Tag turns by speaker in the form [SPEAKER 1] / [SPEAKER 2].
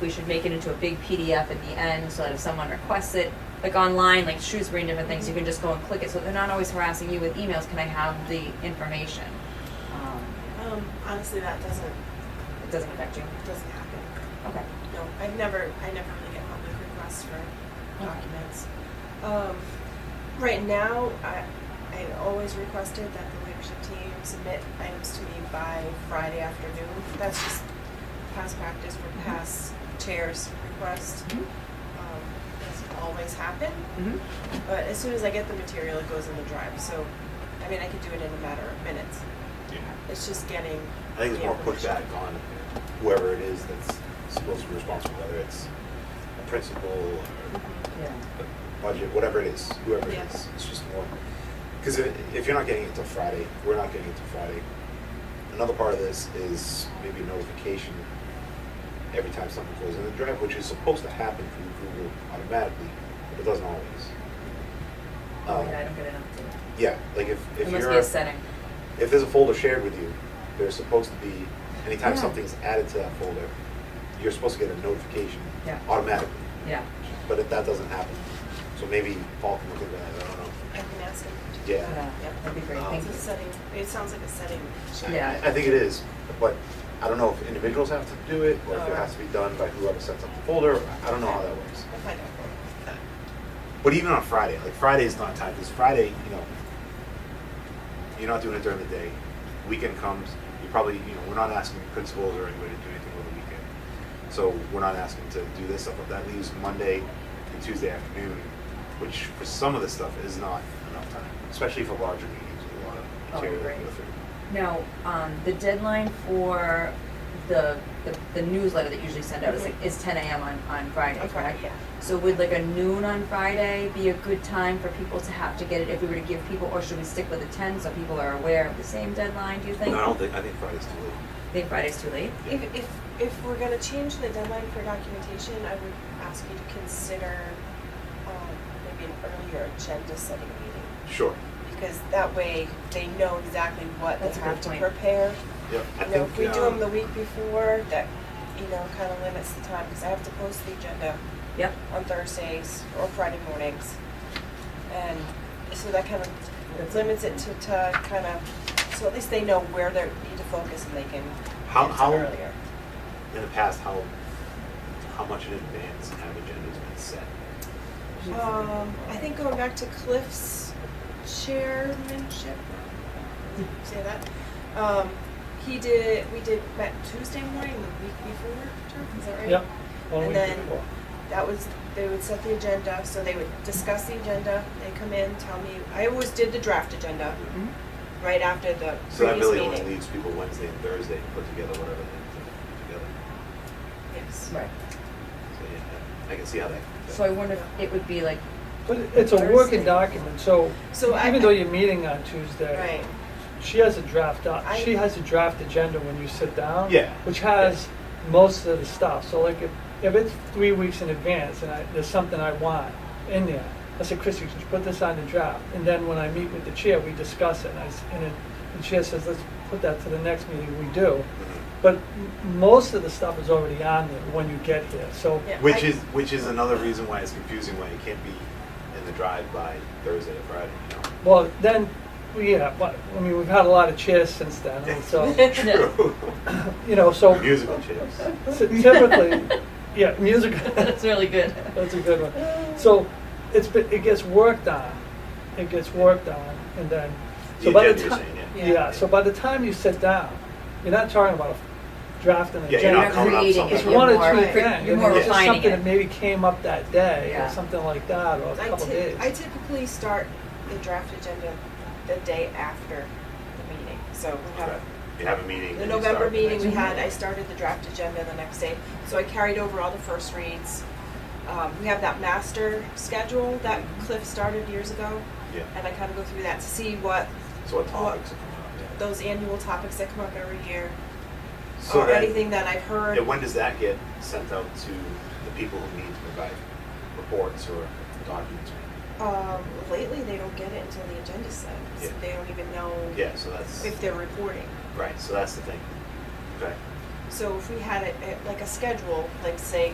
[SPEAKER 1] we should make it into a big PDF at the end so that if someone requests it, like online, like Shrewsbury and different things, you can just go and click it so they're not always harassing you with emails. Can I have the information? Um,
[SPEAKER 2] Um, honestly, that doesn't
[SPEAKER 1] it doesn't affect you.
[SPEAKER 2] doesn't happen.
[SPEAKER 1] Okay.
[SPEAKER 2] No, I've never I never really get public requests for documents. Um, right now, I I always requested that the leadership team submit items to me by Friday afternoon. That's just past practice for past chairs request.
[SPEAKER 1] Mhm.
[SPEAKER 2] Um, that's always happened.
[SPEAKER 1] Mm-hmm.
[SPEAKER 2] But as soon as I get the material, it goes in the drive. So, I mean, I could do it in a matter of minutes. It's just getting.
[SPEAKER 3] I think it's
[SPEAKER 2] the
[SPEAKER 3] more
[SPEAKER 2] information.
[SPEAKER 3] pushback on whoever it is that's supposed to be responsible, whether it's a principal or
[SPEAKER 2] Mm-hmm.
[SPEAKER 1] Yeah.
[SPEAKER 3] a budget, whatever it is, whoever it
[SPEAKER 2] Yeah.
[SPEAKER 3] is. It's just more, because if, if you're not getting it till Friday, we're not getting it till Friday. Another part of this is maybe notification every time something goes in the drive, which is supposed to happen through Google automatically, but it doesn't always.
[SPEAKER 1] Oh,
[SPEAKER 3] Um,
[SPEAKER 1] yeah, I don't get an update.
[SPEAKER 3] Yeah, like if,
[SPEAKER 1] It
[SPEAKER 3] if you're.
[SPEAKER 1] must be a setting.
[SPEAKER 3] if there's a folder shared with you, there's supposed to be, anytime
[SPEAKER 1] Yeah.
[SPEAKER 3] something's added to that folder, you're supposed to get a notification
[SPEAKER 1] Yeah.
[SPEAKER 3] automatically.
[SPEAKER 1] Yeah.
[SPEAKER 3] But if that doesn't happen, so maybe Paul can look at that. I don't know.
[SPEAKER 2] I can ask him. to do
[SPEAKER 3] Yeah.
[SPEAKER 1] Yeah, that'd be great.
[SPEAKER 3] Um,
[SPEAKER 1] Thank
[SPEAKER 2] It's
[SPEAKER 1] you.
[SPEAKER 2] a setting, it sounds like a setting.
[SPEAKER 3] So
[SPEAKER 1] Uh, Yeah.
[SPEAKER 3] I, I think it is, but I don't know if individuals have to do it or if it
[SPEAKER 1] Uh,
[SPEAKER 2] Oh.
[SPEAKER 3] has to be done by whoever sets up the folder. I don't know how that works.
[SPEAKER 2] I'll find out for you.
[SPEAKER 3] But even on Friday, like Friday is not time. Because Friday, you know, you're not doing it during the day. Weekend comes, you probably, you know, we're not asking principals or anybody to do anything over the weekend. So we're not asking to do this stuff. But that leaves Monday and Tuesday afternoon, which for some of this stuff is not enough time, especially for larger meetings with a lot
[SPEAKER 1] Oh,
[SPEAKER 3] of material.
[SPEAKER 1] right.
[SPEAKER 3] to go through.
[SPEAKER 1] Now, um, the deadline for the, the, the newsletter that you usually send out is like, is ten AM on, on Friday,
[SPEAKER 2] On Friday,
[SPEAKER 1] correct?
[SPEAKER 2] yeah.
[SPEAKER 1] So would like a noon on Friday be a good time for people to have to get it if we were to give people, or should we stick with the ten so people are aware of the same deadline, do you think?
[SPEAKER 3] No, I don't think, I think Friday's too late.
[SPEAKER 1] Think Friday's too late?
[SPEAKER 3] Yeah.
[SPEAKER 2] If, if, if we're gonna change the deadline for documentation, I would ask you to consider, um, maybe an earlier agenda setting meeting.
[SPEAKER 3] Sure.
[SPEAKER 2] Because that way, they know exactly what they
[SPEAKER 1] That's a good
[SPEAKER 2] have to
[SPEAKER 1] point.
[SPEAKER 2] prepare.
[SPEAKER 3] Yep. I
[SPEAKER 2] You know,
[SPEAKER 3] think,
[SPEAKER 2] if we do them
[SPEAKER 3] um,
[SPEAKER 2] the week before, that, you know, kind of limits the time, because I have to post the agenda
[SPEAKER 1] Yep,
[SPEAKER 2] on Thursdays or Friday mornings. And so that kind of limits it to, to kind of, so at least they know where they need to focus and they can
[SPEAKER 3] How-
[SPEAKER 2] get it
[SPEAKER 3] how-
[SPEAKER 2] earlier.
[SPEAKER 3] in the past, how, how much in advance have agendas been set?
[SPEAKER 2] Um, I think going back to Cliff's chairmanship, say that, um, he did, we did, met Tuesday morning the week before, Turk, is that right?
[SPEAKER 4] Yep. One
[SPEAKER 2] And
[SPEAKER 4] week
[SPEAKER 2] then-
[SPEAKER 4] before.
[SPEAKER 2] That was, they would set the agenda, so they would discuss the agenda, they come in, tell me, I always did the draft agenda
[SPEAKER 1] Mhm.
[SPEAKER 4] Mm-hmm.
[SPEAKER 2] right after the
[SPEAKER 3] So that
[SPEAKER 2] previous
[SPEAKER 3] really only
[SPEAKER 2] meeting.
[SPEAKER 3] leaves people Wednesday and Thursday to put together whatever they need to put
[SPEAKER 2] Yes.
[SPEAKER 1] right.
[SPEAKER 3] together. So yeah, I can see how that.
[SPEAKER 1] So I wonder if it would be like,
[SPEAKER 4] But it- it's a
[SPEAKER 1] Thursday.
[SPEAKER 4] working document, so
[SPEAKER 2] So I-
[SPEAKER 4] even though you're meeting on Tuesday,
[SPEAKER 2] Right,
[SPEAKER 4] she has a draft, doc-
[SPEAKER 2] I-
[SPEAKER 4] she has a draft agenda when you sit down.
[SPEAKER 3] Yeah.
[SPEAKER 4] Which has most of the stuff, so like if, if it's three weeks in advance and I, there's something I want in there, I say, Christie, could you put this on the draft? And then when I meet with the chair, we discuss it, and I, s- and it- the chair says, let's put that to the next meeting, we do. But m- most of the stuff is already on there when you get here, so
[SPEAKER 2] Yeah, I-
[SPEAKER 3] Which is, which is another reason why it's confusing, why it can't be in the drive by Thursday or Friday, you know?
[SPEAKER 4] Well, then, well, yeah, but, I mean, we've had a lot of chairs since then, and so,
[SPEAKER 3] True.
[SPEAKER 4] you know, so
[SPEAKER 3] Musical chairs.
[SPEAKER 4] ty- typically, yeah, music,
[SPEAKER 1] that's really good.
[SPEAKER 4] that's a good
[SPEAKER 2] Uh,
[SPEAKER 4] one. So it's, been- it gets worked on, it gets worked on, and then, so
[SPEAKER 3] The
[SPEAKER 4] by the
[SPEAKER 3] agenda you're
[SPEAKER 4] time,
[SPEAKER 3] saying,
[SPEAKER 2] yeah.
[SPEAKER 4] yeah, so by the time you sit down, you're not talking about a draft and
[SPEAKER 3] Yeah, you're not
[SPEAKER 4] agenda.
[SPEAKER 3] coming up
[SPEAKER 1] creating
[SPEAKER 3] with
[SPEAKER 1] it,
[SPEAKER 3] something.
[SPEAKER 4] It's
[SPEAKER 1] you're
[SPEAKER 4] one
[SPEAKER 1] more-
[SPEAKER 4] or two
[SPEAKER 2] Right.
[SPEAKER 4] things,
[SPEAKER 1] You're
[SPEAKER 4] and
[SPEAKER 1] more
[SPEAKER 4] it's just
[SPEAKER 1] refining
[SPEAKER 4] something that
[SPEAKER 1] it.
[SPEAKER 4] maybe came up that day,
[SPEAKER 1] Yeah.
[SPEAKER 4] or something like that, or a
[SPEAKER 2] I
[SPEAKER 4] couple
[SPEAKER 2] ty-
[SPEAKER 4] days.
[SPEAKER 2] I typically start the draft agenda the day after the meeting, so we have,
[SPEAKER 3] Right. You have a meeting.
[SPEAKER 2] the
[SPEAKER 3] and you
[SPEAKER 2] November
[SPEAKER 3] start the
[SPEAKER 2] meeting
[SPEAKER 3] next
[SPEAKER 2] we had, I started the draft agenda the next day, so I carried over all the first reads. Um, we have that master schedule that
[SPEAKER 4] Mm-hmm.
[SPEAKER 2] Cliff started years ago,
[SPEAKER 3] Yeah,
[SPEAKER 2] and I kind of go through that to see what
[SPEAKER 3] so what topics are coming up?
[SPEAKER 2] those annual topics that come up every year,
[SPEAKER 3] yeah. So
[SPEAKER 2] or
[SPEAKER 3] that-
[SPEAKER 2] anything that I've heard.
[SPEAKER 3] And when does that get sent out to the people who need to provide reports or documents?
[SPEAKER 2] Um, lately, they don't get it until the agenda's set, so
[SPEAKER 3] Yeah.
[SPEAKER 2] they don't even know
[SPEAKER 3] Yeah, so that's,
[SPEAKER 2] if they're reporting.
[SPEAKER 3] right, so that's the thing. Okay.
[SPEAKER 2] So if we had it, it like a schedule, like say